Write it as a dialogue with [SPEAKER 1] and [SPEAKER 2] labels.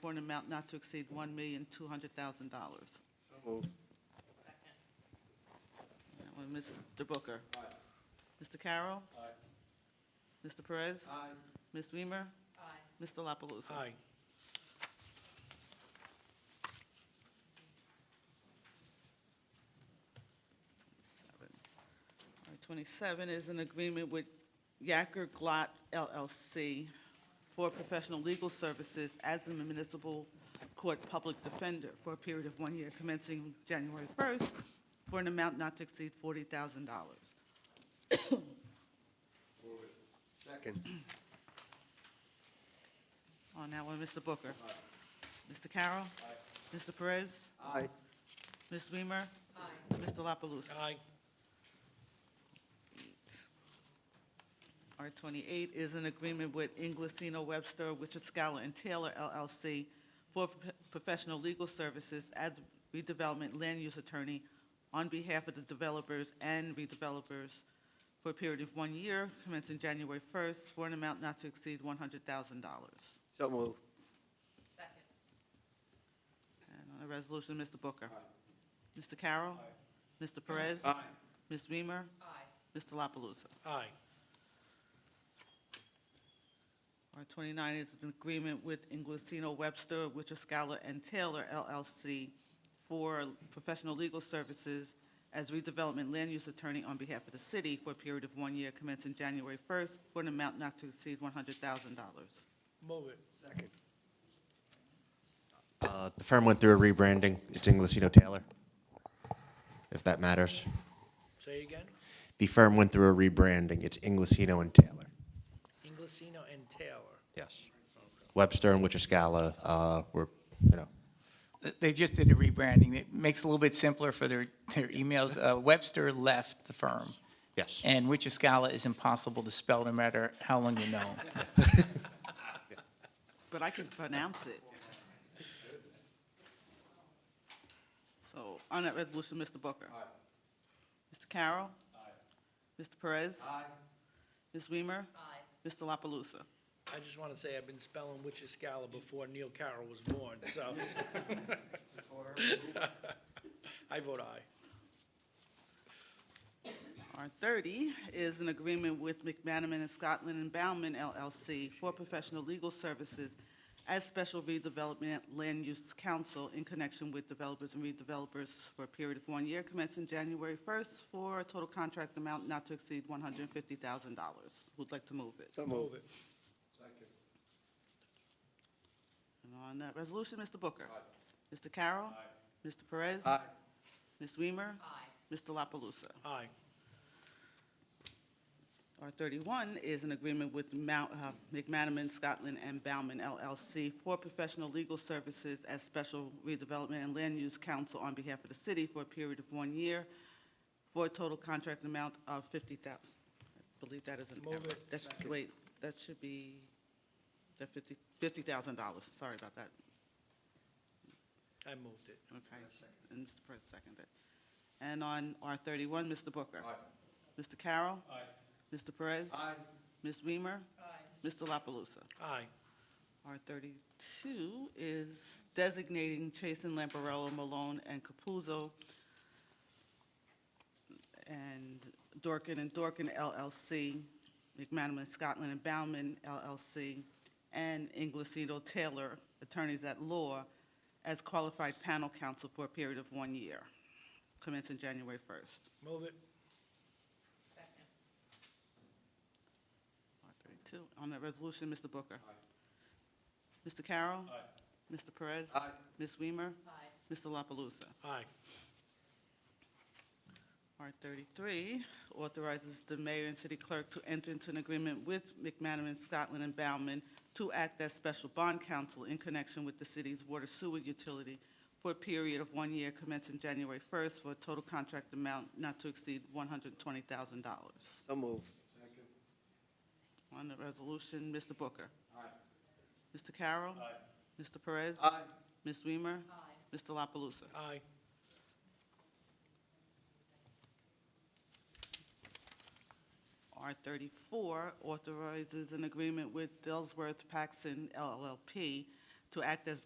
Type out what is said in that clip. [SPEAKER 1] for an amount not to exceed one million, two hundred thousand dollars.
[SPEAKER 2] So moved.
[SPEAKER 1] That one, Mr. Booker. Mr. Carroll. Mr. Perez. Ms. Weimer.
[SPEAKER 3] Aye.
[SPEAKER 1] Mr. La Palusa?
[SPEAKER 4] Aye.
[SPEAKER 1] Seven. All right, Twenty-seven is an agreement with Yacker Glot LLC for professional legal services as a municipal court public defender for a period of one year commencing January first for an amount not to exceed forty thousand dollars.
[SPEAKER 2] Second.
[SPEAKER 1] On that one, Mr. Booker. Mr. Carroll. Mr. Perez.
[SPEAKER 2] Aye.
[SPEAKER 1] Ms. Weimer.
[SPEAKER 3] Aye.
[SPEAKER 1] Mr. La Palusa?
[SPEAKER 4] Aye.
[SPEAKER 1] R twenty-eight is an agreement with Inglesino Webster, Wichita Scholar and Taylor LLC for pro- professional legal services as redevelopment land use attorney on behalf of the developers and redevelopers for a period of one year commencing January first for an amount not to exceed one hundred thousand dollars.
[SPEAKER 2] So moved.
[SPEAKER 3] Second.
[SPEAKER 1] And on the resolution, Mr. Booker. Mr. Carroll. Mr. Perez. Ms. Weimer.
[SPEAKER 3] Aye.
[SPEAKER 1] Mr. La Palusa?
[SPEAKER 4] Aye.
[SPEAKER 1] R twenty-nine is an agreement with Inglesino Webster, Wichita Scholar and Taylor LLC for professional legal services as redevelopment land use attorney on behalf of the city for a period of one year commencing January first for an amount not to exceed one hundred thousand dollars.
[SPEAKER 4] Move it.
[SPEAKER 2] Second.
[SPEAKER 5] Uh, The firm went through a rebranding. It's Inglesino Taylor, if that matters.
[SPEAKER 4] Say it again.
[SPEAKER 5] The firm went through a rebranding. It's Inglesino and Taylor.
[SPEAKER 4] Inglesino and Taylor.
[SPEAKER 5] Yes. Webster and Wichiscala uh, were, you know,
[SPEAKER 6] They just did a rebranding. It makes it a little bit simpler for their, their emails. Uh, Webster left the firm,
[SPEAKER 5] yes.
[SPEAKER 6] and Wichascala is impossible to spell no matter how long you know.
[SPEAKER 1] But I can pronounce it. So on that resolution, Mr. Booker? Mr. Carroll? Mr. Perez? Ms. Weimer?
[SPEAKER 3] Aye.
[SPEAKER 1] Mr. La Palusa?
[SPEAKER 4] I just want to say I've been spelling Wichiscala before Neil Carroll was born, so. I vote aye.
[SPEAKER 1] R thirty is an agreement with McManaman and Scotland and Bauman LLC for professional legal services as special redevelopment land use counsel in connection with developers and redevelopers for a period of one year commencing January first for a total contract amount not to exceed one hundred and fifty thousand dollars. Would like to move it.
[SPEAKER 2] So
[SPEAKER 4] Move
[SPEAKER 2] moved.
[SPEAKER 4] it.
[SPEAKER 1] And on that resolution, Mr. Booker. Mr. Carroll. Mr. Perez.
[SPEAKER 2] Aye.
[SPEAKER 1] Ms. Weimer.
[SPEAKER 3] Aye.
[SPEAKER 1] Mr. La Palusa?
[SPEAKER 4] Aye.
[SPEAKER 1] R thirty-one is an agreement with Mount, uh, McManaman, Scotland, and Bauman LLC for professional legal services as special redevelopment and land use counsel on behalf of the city for a period of one year for a total contract amount of fifty thousand. I believe that is an
[SPEAKER 4] Move
[SPEAKER 1] error.
[SPEAKER 4] it.
[SPEAKER 1] That should, wait, that should be, that fifty, fifty thousand dollars, sorry about that.
[SPEAKER 4] I moved it.
[SPEAKER 1] Okay, and Mr. Perez seconded. And on R thirty-one, Mr. Booker. Mr. Carroll. Mr. Perez. Ms. Weimer.
[SPEAKER 3] Aye.
[SPEAKER 1] Mr. La Palusa?
[SPEAKER 4] Aye.
[SPEAKER 1] R thirty-two is designating Chasen, Lamparello, Malone, and Capuzzo and Dorkin and Dorkin LLC, McManaman, Scotland and Bauman LLC, and Inglesito Taylor, attorneys at law, as qualified panel counsel for a period of one year, commencing January first.
[SPEAKER 4] Move it.
[SPEAKER 3] Second.
[SPEAKER 1] R thirty-two. On that resolution, Mr. Booker. Mr. Carroll. Mr. Perez.
[SPEAKER 2] Aye.
[SPEAKER 1] Ms. Weimer.
[SPEAKER 3] Aye.
[SPEAKER 1] Mr. La Palusa?
[SPEAKER 4] Aye.
[SPEAKER 1] R thirty-three authorizes the mayor and city clerk to enter into an agreement with McManaman, Scotland, and Bauman to act as special bond counsel in connection with the city's water sewer utility for a period of one year commencing January first for a total contract amount not to exceed one hundred and twenty thousand dollars.
[SPEAKER 2] So moved.
[SPEAKER 1] On the resolution, Mr. Booker? Mr. Carroll? Mr. Perez? Ms. Weimer?
[SPEAKER 3] Aye.
[SPEAKER 1] Mr. La Palusa?
[SPEAKER 4] Aye.
[SPEAKER 1] R thirty-four authorizes an agreement with Dellsworth Paxson LLP to act as